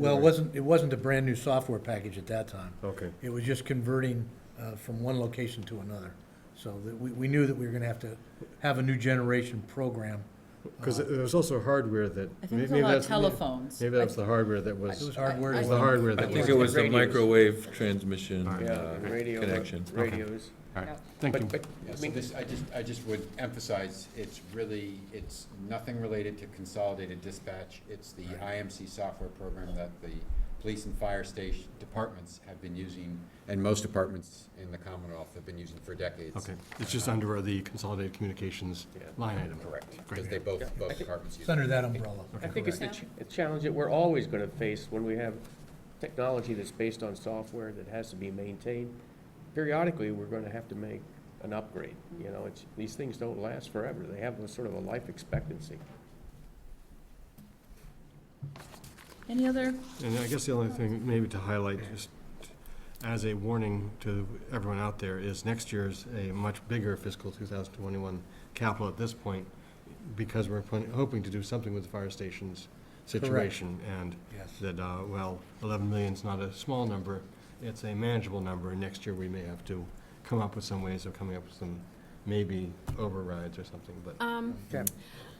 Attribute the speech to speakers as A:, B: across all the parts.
A: Well, it wasn't, it wasn't a brand-new software package at that time.
B: Okay.
A: It was just converting uh, from one location to another. So that, we, we knew that we were gonna have to have a new generation program.
B: Because there was also hardware that.
C: I think there's a
B: maybe
C: lot of
B: that's-
C: telephones.
B: Maybe that was the hardware that
A: It was
B: was,
A: hardware.
C: I-
B: was the hardware
D: I
B: that
D: think it was the
E: Radios.
D: microwave transmission
E: Yeah,
D: uh,
E: the radio,
D: connection.
E: radios.
F: All right,
C: Yeah.
F: thank you.
E: But, but,
G: Yeah,
E: I
G: so
E: mean,
G: this, I just, I just would emphasize, it's really, it's nothing related to consolidated dispatch. It's the IMC software program that the police and fire station departments have been using, and most departments in the Commonwealth have been using for decades.
F: Okay, it's just under the consolidated communications
E: Yeah.
F: line item.
G: Correct,
F: Great.
G: because they both, both departments use
A: It's
G: it.
A: under that umbrella.
E: I think it's the
C: Correct.
E: ch- a challenge that we're always gonna face when we have technology that's based on software that has to be maintained. Periodically, we're gonna have to make an upgrade, you know, it's, these things don't last forever. They have a sort of a life expectancy.
C: Any other,
F: And I guess the only thing maybe to highlight, just as a warning to everyone out there, is next year's a much bigger fiscal 2021 capital at this point, because we're pon- hoping to do something with the fire stations situation. And
A: Yes.
F: that, uh, well, 11 million's not a small number, it's a manageable number, and next year we may have to come up with some ways of coming up with some maybe overrides or something, but.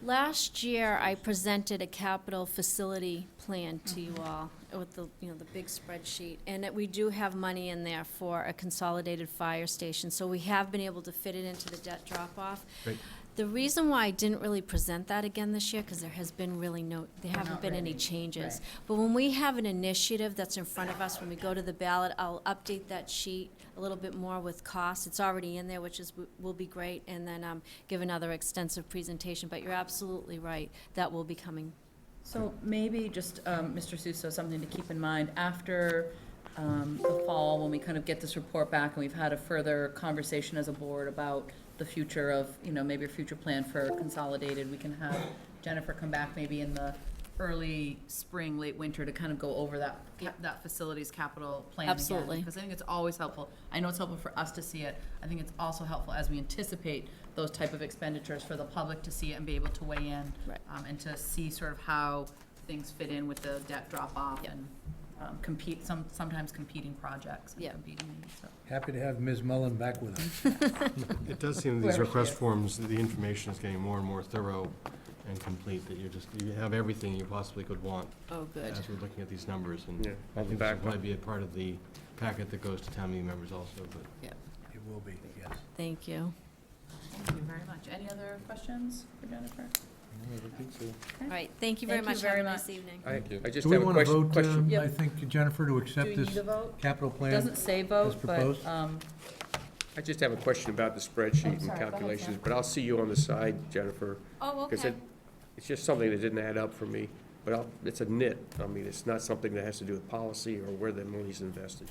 H: Last year, I presented a capital facility plan to you all with the, you know, the big spreadsheet. And that we do have money in there for a consolidated fire station, so we have been able to fit it into the debt drop-off.
F: Great.
H: The reason why I didn't really present that again this year, because there has been really no, there haven't
C: Not
H: been
C: ready.
H: any changes. But when we have an initiative that's in front of us, when we go to the ballot, I'll update that sheet a little bit more with costs. It's already in there, which is, will be great, and then um, give another extensive presentation. But you're absolutely right, that will be coming.
C: so maybe just, um, Mr. Suso, something to keep in mind, after um, the fall, when we kind of get this report back and we've had a further conversation as a board about the future of, you know, maybe a future plan for consolidated, we can have Jennifer come back maybe in the early spring, late winter to kind of go over that, cap- that facility's capital plan again.
H: Absolutely.
C: Because I think it's always helpful. I know it's helpful for us to see it. I think it's also helpful as we anticipate those type of expenditures for the public to see it and be able to weigh in.
H: Right.
C: Um, and to see sort of how things fit in with the debt drop-off
H: Yep.
C: and, um, compete, some, sometimes competing projects and
H: Yep.
C: competing needs, so.
A: Happy to have Ms. Mullen back with us.
F: It does seem these
C: Where-
F: request forms, the information is getting more and more thorough and complete, that you're just, you have everything you possibly could want
H: Oh, good.
F: as we're looking at these numbers, and
E: Yeah,
F: I think this will
E: backup.
F: probably be a part of the packet that goes to town meeting members also, but.
A: It will be, yes.
H: Thank you.
C: Thank you very much. Any other questions for Jennifer?
H: All right, thank you very
C: Thank you
H: much.
C: very
H: Have a nice
C: much.
H: evening.
E: I,
D: Thank you.
E: I just
A: Do we
E: have a
A: want to
E: question,
A: vote,
E: question.
A: uh,
C: Yep.
A: I think, Jennifer, to accept this
C: vote?
A: capital plan?
C: Doesn't say vote,
A: proposed?
C: but, um,
E: I just have a question about the
C: I'm
E: spreadsheet
C: sorry, go
E: and
C: ahead,
E: calculations,
C: Sam.
E: but I'll see you on the side, Jennifer.
H: Oh,
E: 'cause
H: okay.
E: it- It's just something that didn't add up for me, but I'll, it's a nit. I mean, it's not something that has to do with policy or where the money's invested.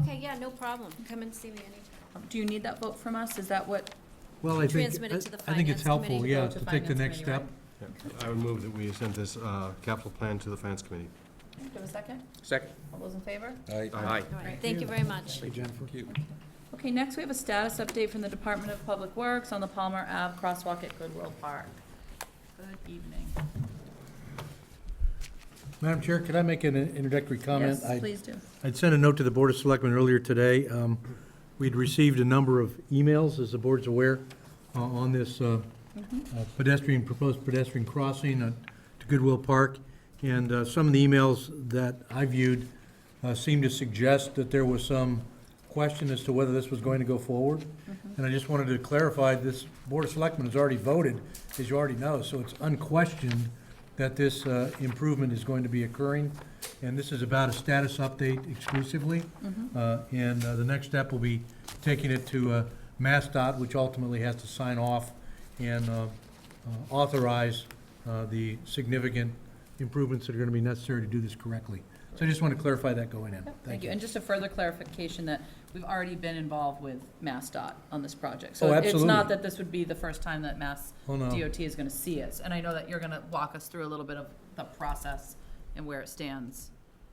H: Okay, yeah, no problem. Come and see me anytime.
C: do you need that vote from us? Is that what?
A: Well, I think,
H: Transmit it to the
A: I think it's
H: finance
A: helpful,
H: committee.
A: yeah,
C: Go to
A: to take the
C: finance
A: next
C: committee,
A: step.
F: I would move that we send this uh, capital plan to the finance committee.
C: Do you have a second?
E: Second?
C: All those in favor?
E: Aye.
H: All right, thank you very much.
A: Hey, Jennifer.
C: Okay, next we have a status update from the Department of Public Works on the Palmer Ave crosswalk at Goodwill Park. Good evening.
A: Madam Chair, could I make an introductory comment?
C: Yes,
A: I-
C: please do.
A: I'd sent a note to the Board of Selectmen earlier today. Um, We'd received a number of emails, as the board's aware, uh, on this uh,
C: Mm-hmm,
A: uh, pedestrian, proposed pedestrian crossing at- to Goodwill Park. And uh, some of the emails that I viewed uh, seemed to suggest that there was some question as to whether this was going to go forward. And I just wanted to clarify, this Board of Selectmen has already voted, as you already know, so it's unquestioned that this uh, improvement is going to be occurring. And this is about a status update exclusively.
C: mm-hmm.
A: Uh, And uh, the next step will be taking it to uh, MassDOT, which ultimately has to sign off and uh, uh, authorize uh, the significant improvements that are going to be necessary to do this correctly. So I just want to clarify that going in.
C: Yep, Thank you. And just a further clarification that we've already been involved with MassDOT on this project.
A: Oh,
C: So it's
A: absolutely.
C: not that this would be the first time that Mass
A: Oh, no.
C: DOT is going to see us. And I know that you're going to walk us through a little bit of the process and where it stands,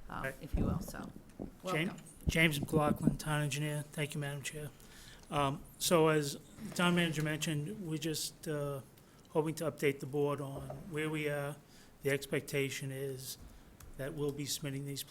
C: uh, if you will, so.
I: Jane?
C: welcome.
I: James McLaughlin, Town Engineer. Thank you, Madam Chair. Um, So as the Town Manager mentioned, we're just uh, hoping to update the board on where we are. The expectation is that will be submitting these plans